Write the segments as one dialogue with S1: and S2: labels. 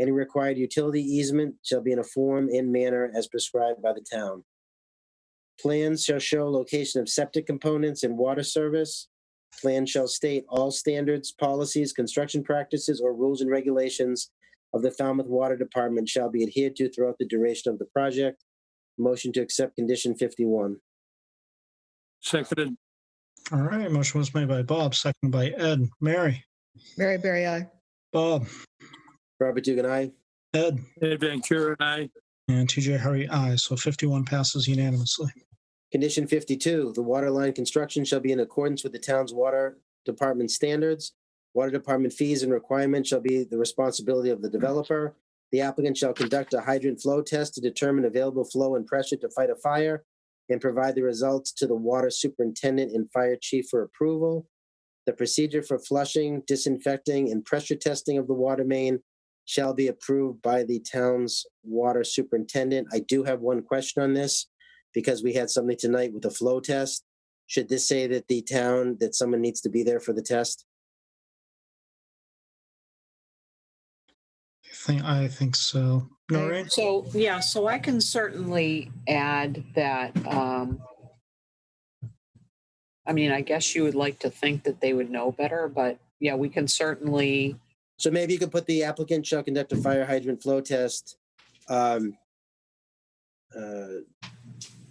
S1: Any required utility easement shall be in a form and manner as prescribed by the town. Plans shall show location of septic components and water service. Plan shall state all standards, policies, construction practices, or rules and regulations of the Falmouth Water Department shall be adhered to throughout the duration of the project. Motion to accept condition fifty-one.
S2: Seconded.
S3: All right, motion was made by Bob, seconded by Ed. Mary,
S4: Mary Berry I.
S3: Bob,
S1: Robert Dugan, aye.
S3: Ed,
S2: Ed Van Kuren, aye.
S3: and TJ Hurry, aye. So 51 passes unanimously.
S1: Condition fifty-two, the water line construction shall be in accordance with the town's water department standards. Water department fees and requirements shall be the responsibility of the developer. The applicant shall conduct a hydrant flow test to determine available flow and pressure to fight a fire and provide the results to the water superintendent and fire chief for approval. The procedure for flushing, disinfecting, and pressure testing of the water main shall be approved by the town's water superintendent. I do have one question on this because we had something tonight with a flow test. Should this say that the town, that someone needs to be there for the test?
S3: I think, I think so. Noreen,
S5: So, yeah, so I can certainly add that, um, I mean, I guess you would like to think that they would know better, but yeah, we can certainly,
S1: So maybe you could put the applicant shall conduct a fire hydrant flow test um, uh,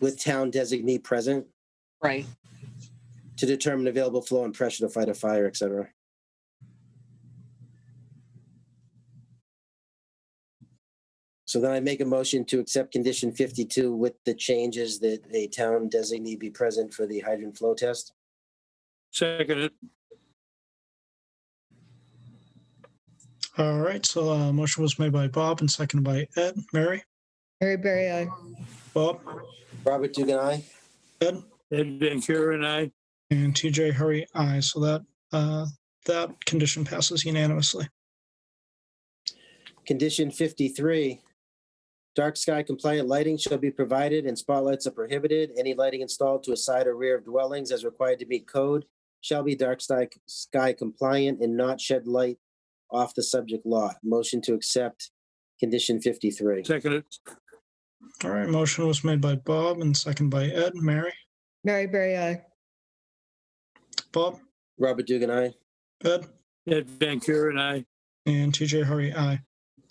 S1: with town designee present
S5: right,
S1: to determine available flow and pressure to fight a fire, et cetera. So then I make a motion to accept condition fifty-two with the changes that a town designee be present for the hydrant flow test.
S2: Seconded.
S3: all right, so uh, motion was made by Bob and seconded by Ed. Mary,
S4: Mary Berry I.
S3: Bob,
S1: Robert Dugan, aye.
S3: Ed,
S2: Ed Van Kuren, aye.
S3: and TJ Hurry, aye. So that, uh, that condition passes unanimously.
S1: Condition fifty-three. Dark sky compliant lighting shall be provided and spotlights are prohibited. Any lighting installed to a side or rear of dwellings as required to meet code shall be dark sky, sky compliant and not shed light off the subject lot. Motion to accept condition fifty-three.
S2: Seconded.
S3: All right, motion was made by Bob and seconded by Ed. Mary,
S4: Mary Berry I.
S3: Bob,
S1: Robert Dugan, aye.
S3: Ed,
S2: Ed Van Kuren, aye.
S3: and TJ Hurry, aye.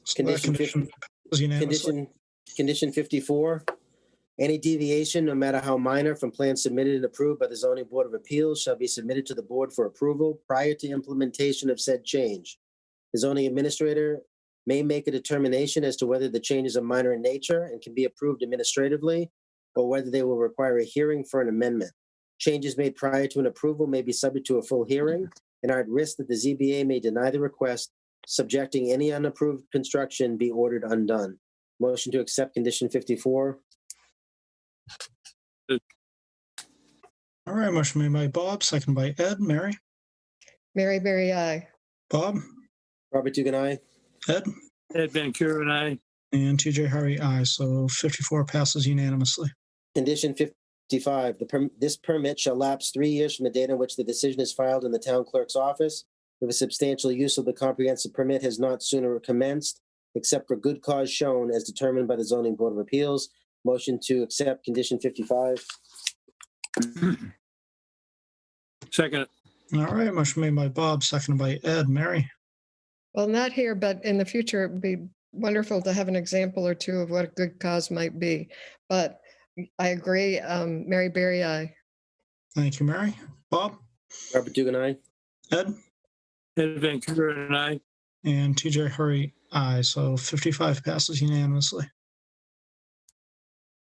S3: So that
S1: Condition fif-
S3: condition passes unanimously.
S1: Condition, condition fifty-four, any deviation, no matter how minor, from plans submitted and approved by the zoning board of appeals shall be submitted to the board for approval prior to implementation of said change. The zoning administrator may make a determination as to whether the changes are minor in nature and can be approved administratively or whether they will require a hearing for an amendment. Changes made prior to an approval may be subject to a full hearing and are at risk that the ZBA may deny the request, subjecting any unapproved construction be ordered undone. Motion to accept condition fifty-four.
S3: All right, motion made by Bob, seconded by Ed. Mary,
S4: Mary Berry I.
S3: Bob,
S1: Robert Dugan, aye.
S3: Ed,
S2: Ed Van Kuren, aye.
S3: and TJ Hurry, aye. So 54 passes unanimously.
S1: Condition fifty-five, the perm, this permit shall lapse three years from the date on which the decision is filed in the town clerk's office. If a substantial use of the comprehensive permit has not sooner commenced, except for good cause shown as determined by the zoning board of appeals. Motion to accept condition fifty-five.
S2: Seconded.
S3: All right, motion made by Bob, seconded by Ed. Mary,
S4: Well, not here, but in the future, it'd be wonderful to have an example or two of what a good cause might be. But I agree, um, Mary Berry I.
S3: thank you, Mary. Bob,
S1: Robert Dugan, aye.
S3: Ed,
S2: Ed Van Kuren, aye.
S3: and TJ Hurry, aye. So 55 passes unanimously.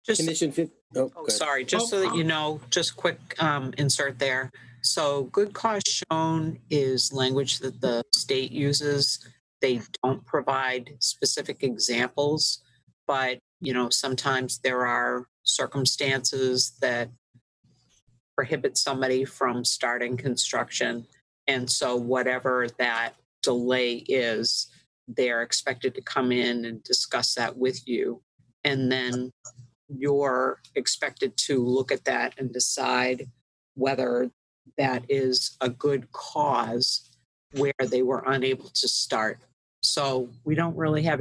S5: just
S1: Condition fif- oh, go
S5: Oh,
S1: ahead.
S5: sorry, just so that you know, just quick um, insert there. So good cause shown is language that the state uses. They don't provide specific examples, but, you know, sometimes there are circumstances that prohibit somebody from starting construction. And so whatever that delay is, they're expected to come in and discuss that with you. And then you're expected to look at that and decide whether that is a good cause where they were unable to start. So we don't really have